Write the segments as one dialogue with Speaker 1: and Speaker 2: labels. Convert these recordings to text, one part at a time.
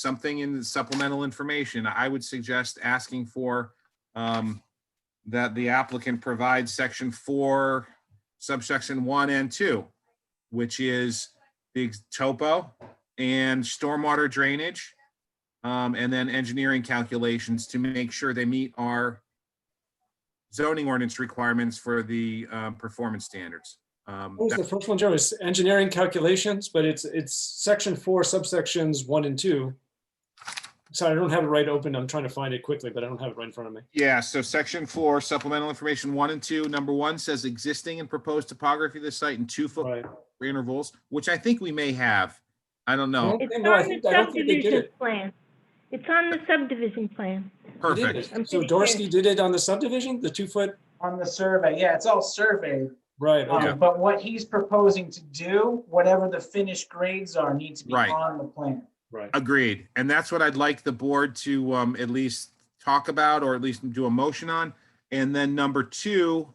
Speaker 1: something in the supplemental information, I would suggest asking for um, that the applicant provide section four, subsection one and two, which is the topo and stormwater drainage, um, and then engineering calculations to make sure they meet our zoning ordinance requirements for the um, performance standards. Um,
Speaker 2: What was the first one, Joe? It's engineering calculations, but it's, it's section four subsections one and two. Sorry, I don't have it right open. I'm trying to find it quickly, but I don't have it right in front of me.
Speaker 1: Yeah, so section four supplemental information one and two, number one says existing and proposed topography of the site in two foot
Speaker 2: Right.
Speaker 1: intervals, which I think we may have. I don't know.
Speaker 2: Okay,
Speaker 3: It's
Speaker 2: no, I
Speaker 3: on
Speaker 2: think-
Speaker 3: the
Speaker 2: I don't think they did
Speaker 3: subdivision
Speaker 2: it.
Speaker 3: plan. It's on the subdivision plan.
Speaker 2: They did
Speaker 1: Perfect.
Speaker 2: it. So Dorsey did it on the subdivision, the two foot,
Speaker 4: on the survey. Yeah, it's all surveyed.
Speaker 2: right,
Speaker 4: Um,
Speaker 2: okay,
Speaker 4: But what he's proposing to do, whatever the finished grades are, need to be
Speaker 1: Right.
Speaker 4: on the plan.
Speaker 2: right.
Speaker 1: Agreed. And that's what I'd like the board to um at least talk about or at least do a motion on. And then number two,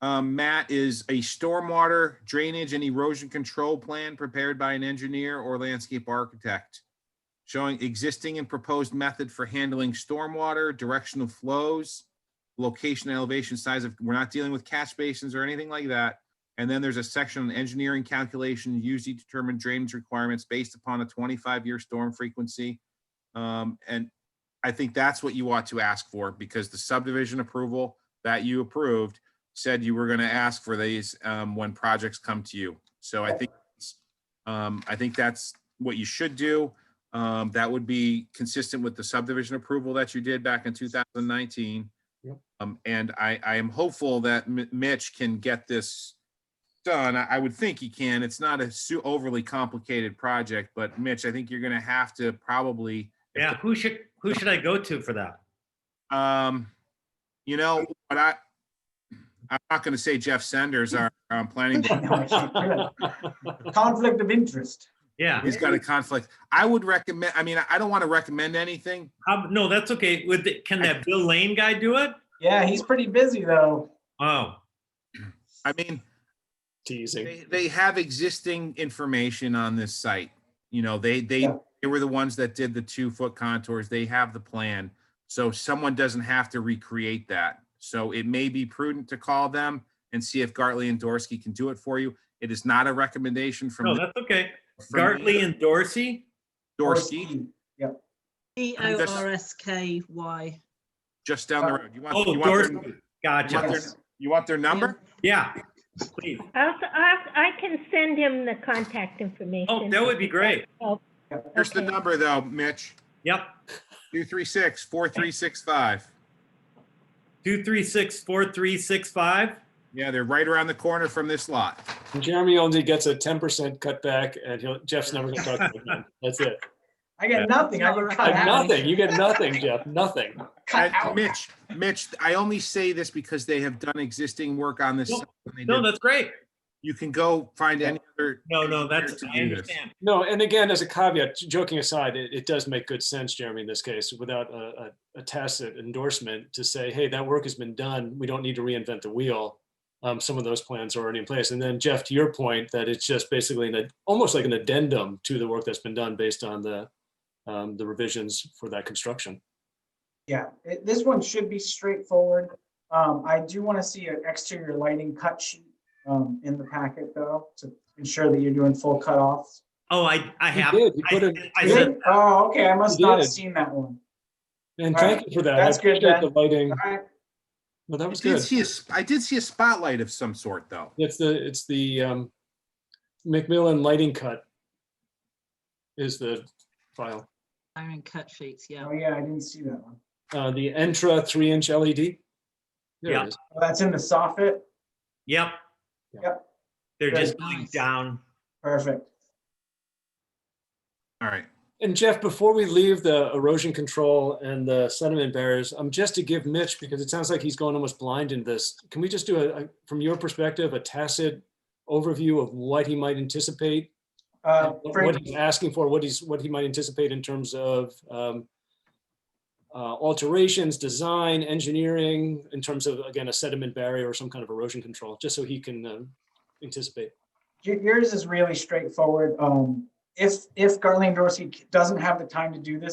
Speaker 1: um, Matt, is a stormwater drainage and erosion control plan prepared by an engineer or landscape architect. Showing existing and proposed method for handling stormwater, directional flows, location, elevation, size of, we're not dealing with catch basins or anything like that. And then there's a section on engineering calculation, usually determine drainage requirements based upon a twenty-five year storm frequency. Um, and I think that's what you ought to ask for because the subdivision approval that you approved said you were gonna ask for these, um, when projects come to you. So I think, it's- um, I think that's what you should do. Um, that would be consistent with the subdivision approval that you did back in two thousand nineteen.
Speaker 2: Yep.
Speaker 1: Um, and I, I am hopeful that M- Mitch can get this done. I, I would think he can. It's not a su- overly complicated project, but Mitch, I think you're gonna have to probably,
Speaker 5: Yeah, who should, who should I go to for that?
Speaker 1: um, you know, but I, I'm not gonna say Jeff Senders, our, um, planning, board.
Speaker 4: Conflict of interest.
Speaker 5: Yeah,
Speaker 1: he's got a conflict. I would recommend, I mean, I don't want to recommend anything.
Speaker 5: Um, no, that's okay. With, the- can that Bill Lane guy do it?
Speaker 4: Yeah, he's pretty busy though.
Speaker 5: Oh,
Speaker 1: I mean,
Speaker 2: Teasing.
Speaker 1: they, they have existing information on this site. You know, they, they,
Speaker 4: Yeah.
Speaker 1: they were the ones that did the two foot contours. They have the plan. So someone doesn't have to recreate that. So it may be prudent to call them and see if Gartley and Dorsey can do it for you. It is not a recommendation
Speaker 5: no,
Speaker 1: from
Speaker 5: that's okay.
Speaker 1: from
Speaker 5: Gartley and Dorsey?
Speaker 1: Dorsey,
Speaker 6: D
Speaker 1: I mean,
Speaker 6: O
Speaker 1: that's-
Speaker 6: R S K Y.
Speaker 1: just down the road. You want,
Speaker 5: Oh,
Speaker 1: Uh, you want,
Speaker 5: Dorsey.
Speaker 1: their-
Speaker 5: Gotcha.
Speaker 4: Yes.
Speaker 1: you want their number?
Speaker 5: Yeah. Please.
Speaker 3: I'll, i I can send him the contact information.
Speaker 5: Oh, that would be great.
Speaker 1: Here's the
Speaker 3: Okay.
Speaker 1: number though, Mitch,
Speaker 5: Yep.
Speaker 1: two, three, six, four, three, six, five.
Speaker 5: Two, three, six, four, three, six, five.
Speaker 1: Yeah, they're right around the corner from this lot.
Speaker 2: Jeremy only gets a ten percent cutback and he'll, Jeff's never gonna talk to him again. That's it.
Speaker 4: I got nothing. I got cut
Speaker 2: Like,
Speaker 4: out.
Speaker 2: Nothing, you get nothing, Jeff, nothing.
Speaker 4: Cut
Speaker 1: And
Speaker 4: out.
Speaker 1: Mitch, Mitch, I only say this because they have done existing work on this.
Speaker 5: No,
Speaker 1: site when they
Speaker 5: No,
Speaker 1: did-
Speaker 5: that's great.
Speaker 1: You can go find any other.
Speaker 5: No, no, that's,
Speaker 1: To
Speaker 5: I
Speaker 1: do this.
Speaker 5: understand.
Speaker 2: No, and again, as a caveat, j- joking aside, it, it does make good sense, Jeremy, in this case, without a, a, a tacit endorsement to say, hey, that work has been done. We don't need to reinvent the wheel. Um, some of those plans are already in place. And then Jeff, to your point, that it's just basically an, ad- almost like an addendum to the work that's been done based on the, um, the revisions for that construction.
Speaker 4: Yeah, it- this one should be straightforward. Um, I do want to see an exterior lighting cut sheet um, in the packet though, to ensure that you're doing full cutoffs.
Speaker 5: Oh, I, I
Speaker 2: He
Speaker 5: have.
Speaker 2: did, he
Speaker 5: I-
Speaker 2: put it-
Speaker 5: I
Speaker 2: he
Speaker 5: said,
Speaker 2: did.
Speaker 4: Oh, okay, I must
Speaker 2: You
Speaker 4: not have
Speaker 2: did.
Speaker 4: seen that one.
Speaker 2: And
Speaker 4: All
Speaker 2: thank
Speaker 4: right.
Speaker 2: you for that. I
Speaker 4: That's good,
Speaker 2: appreciate
Speaker 4: Ben.
Speaker 2: The lighting,
Speaker 4: All right,
Speaker 2: well, that
Speaker 1: I
Speaker 2: was
Speaker 1: did
Speaker 2: good.
Speaker 1: see a, sp- I did see a spotlight of some sort though.
Speaker 2: It's the, it's the, um, Macmillan lighting cut is the file.
Speaker 6: Iron cut sheets, yeah.
Speaker 4: oh yeah, I didn't see that one.
Speaker 2: uh, the Entra three inch LED. There
Speaker 5: Yeah.
Speaker 2: it is.
Speaker 4: Oh, That's in the soffit.
Speaker 5: yep.
Speaker 4: Yep.
Speaker 5: They're just
Speaker 6: Very
Speaker 5: going
Speaker 6: nice.
Speaker 5: down.
Speaker 4: Perfect.
Speaker 1: All right.
Speaker 2: And Jeff, before we leave the erosion control and the sediment barriers, um, just to give Mitch, because it sounds like he's going almost blind in this, can we just do a, a- from your perspective, a tacit overview of what he might anticipate?
Speaker 4: Uh,
Speaker 2: and What
Speaker 4: Frank,
Speaker 2: what he's asking for, what he's, what he might anticipate in terms of, um, uh, alterations, design, engineering, in terms of, again, a sediment barrier or some kind of erosion control, just so he can, um, uh, anticipate.
Speaker 4: y- yours is really straightforward. Um, if, if Darlene Dorsey doesn't have the time to do this,